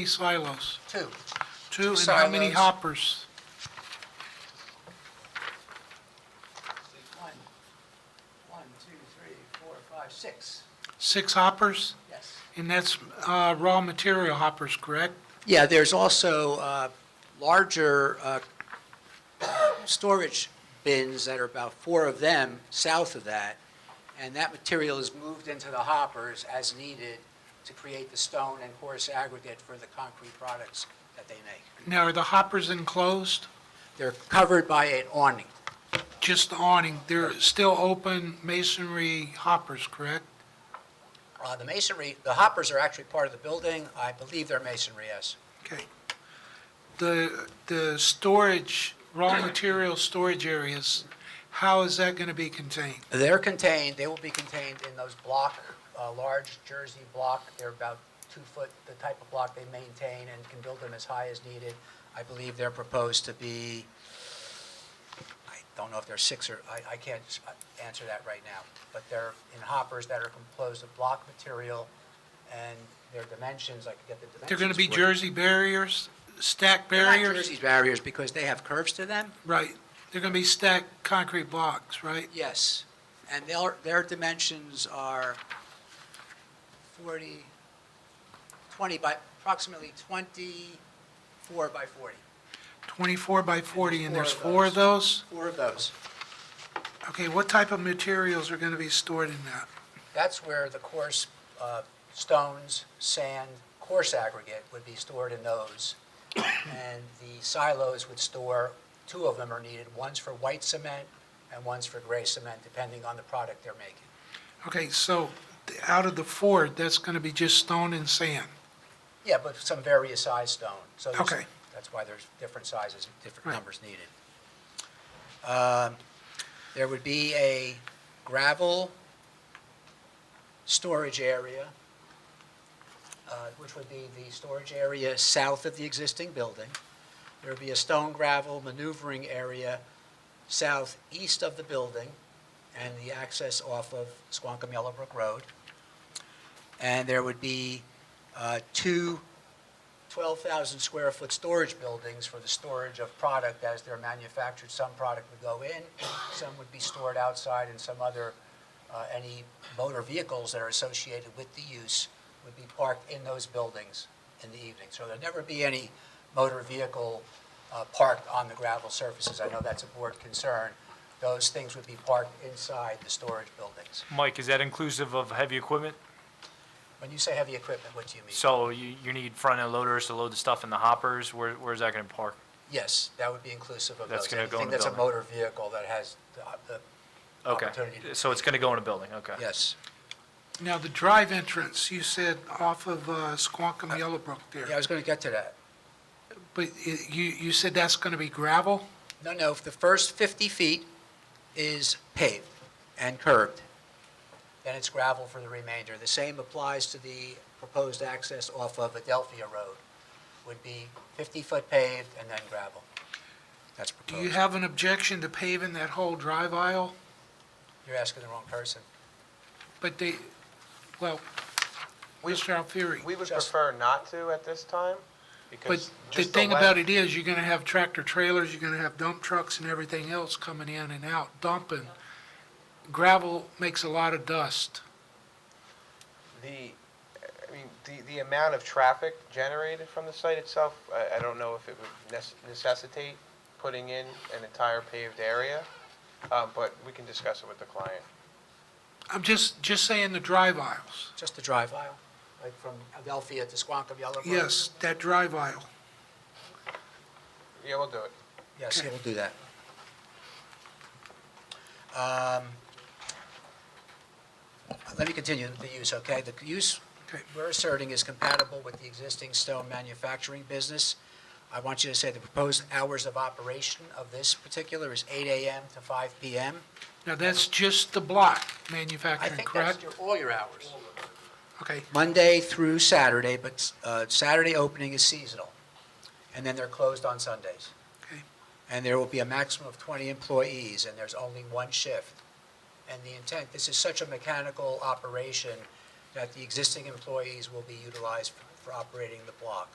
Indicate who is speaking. Speaker 1: many silos?
Speaker 2: Two.
Speaker 1: Two,
Speaker 2: Two
Speaker 1: and how many
Speaker 2: silos.
Speaker 1: hoppers?
Speaker 2: One, one, two, three, four, five, six,
Speaker 1: Six hoppers?
Speaker 2: yes.
Speaker 1: And that's uh, raw material hoppers, correct?
Speaker 2: Yeah, there's also uh, larger uh, storage bins that are about four of them south of that, and that material is moved into the hoppers as needed to create the stone and coarse aggregate for the concrete products that they make.
Speaker 1: Now, are the hoppers enclosed?
Speaker 2: They're covered by an awning.
Speaker 1: Just the awning, they're still open masonry hoppers, correct?
Speaker 2: Uh, The masonry, the hoppers are actually part of the building. I believe they're masonry, yes.
Speaker 1: Okay. The, the storage, raw material storage areas, how is that going to be contained?
Speaker 2: They're contained, they will be contained in those block, uh, large Jersey block. They're about two foot, the type of block they maintain and can build them as high as needed. I believe they're proposed to be, I don't know if they're six or, I, I can't s- uh, answer that right now. But they're in hoppers that are composed of block material and their dimensions, I could get the dimensions.
Speaker 1: They're going to be
Speaker 2: for you.
Speaker 1: Jersey barriers, stacked
Speaker 2: They're not
Speaker 1: barriers?
Speaker 2: Jersey barriers because they have curves to them.
Speaker 1: Right. They're going to be stacked concrete blocks, right?
Speaker 2: Yes, and their, their dimensions are 40, 20 by, approximately 24 by 40.
Speaker 1: 24 by 40, and there's
Speaker 2: Four
Speaker 1: four
Speaker 2: of
Speaker 1: of those?
Speaker 2: Four of those.
Speaker 1: Okay, what type of materials are going to be stored in that?
Speaker 2: That's where the coarse uh, stones, sand, coarse aggregate would be stored in those. And the silos would store, two of them are needed, one's for white cement and one's for gray cement, depending on the product they're making.
Speaker 1: Okay, so th- out of the four, that's going to be just stone and sand,
Speaker 2: Yeah, but some various size stone. So there's-
Speaker 1: Okay.
Speaker 2: That's why there's different sizes, and different
Speaker 1: Right.
Speaker 2: numbers needed. Um, There would be a gravel storage area, uh, which would be the storage area south of the existing building. There would be a stone gravel maneuvering area southeast of the building and the access off of Squonkam Yellowbrook Road. And there would be uh, two 12,000-square-foot storage buildings for the storage of product as they're manufactured. Some product would go in, some would be stored outside, and some other, uh, any motor vehicles that are associated with the use would be parked in those buildings in the evening. So there'd never be any motor vehicle uh, parked on the gravel surfaces. I know that's a board concern. Those things would be parked inside the storage buildings.
Speaker 3: Mike, is that inclusive of heavy equipment?
Speaker 2: When you say heavy equipment, what do you mean?
Speaker 3: So you, you need front-end loaders to load the stuff in the hoppers, where, where's that gonna park?
Speaker 2: Yes, that would be inclusive of those.
Speaker 3: That's gonna go in
Speaker 2: Anything
Speaker 3: the
Speaker 2: that's a
Speaker 3: building.
Speaker 2: motor vehicle that has the, the-
Speaker 3: Okay,
Speaker 2: Opportunity to-
Speaker 3: so it's gonna go in a building, okay.
Speaker 2: yes.
Speaker 1: Now, the drive entrance, you said off of uh, Squonkam Yellowbrook
Speaker 2: Yeah, I
Speaker 1: there,
Speaker 2: was going to get to that.
Speaker 1: but i- you, you said that's going to be gravel?
Speaker 2: No, no, the first 50 feet is paved and curbed. Then it's gravel for the remainder. The same applies to the proposed access off of Adelphia Road. Would be 50-foot paved and then gravel. That's
Speaker 1: Do you
Speaker 4: Uh,
Speaker 2: proposed.
Speaker 1: have an objection to paving that whole drive aisle?
Speaker 2: You're asking the wrong person.
Speaker 1: But they, well, Mr. Alfieri,
Speaker 4: We would
Speaker 2: Just-
Speaker 4: prefer not to at this time,
Speaker 1: but
Speaker 4: because
Speaker 1: the
Speaker 4: just the
Speaker 1: thing about
Speaker 4: length,
Speaker 1: it is, you're going to have tractor trailers, you're going to have dump trucks and everything else coming in and out, dumping. Gravel makes a lot of dust.
Speaker 4: the, I mean, the, the amount of traffic generated from the site itself, I, I don't know if it would nes- necessitate putting in an entire paved area, um, but we can discuss it with the client.
Speaker 1: I'm just, just saying the drive aisles.
Speaker 2: Just the drive aisle, like from Adelphia to Squonkam Yellowbrook?
Speaker 1: Yes, that drive aisle.
Speaker 4: Yeah, we'll do it.
Speaker 2: Yes,
Speaker 1: Okay.
Speaker 2: we'll do that. Um, Let me continue the use, okay? The use
Speaker 1: Okay.
Speaker 2: we're asserting is compatible with the existing stone manufacturing business. I want you to say the proposed hours of operation of this particular is 8 AM to 5 PM.
Speaker 1: Now, that's just the block
Speaker 2: I
Speaker 1: manufacturing,
Speaker 2: think that's
Speaker 1: correct?
Speaker 2: your- all your hours.
Speaker 1: Okay,
Speaker 2: Monday through Saturday, but uh, Saturday opening is seasonal, and then they're closed on Sundays.
Speaker 1: okay.
Speaker 2: and there will be a maximum of 20 employees, and there's only one shift. And the intent, this is such a mechanical operation that the existing employees will be utilized for operating the block.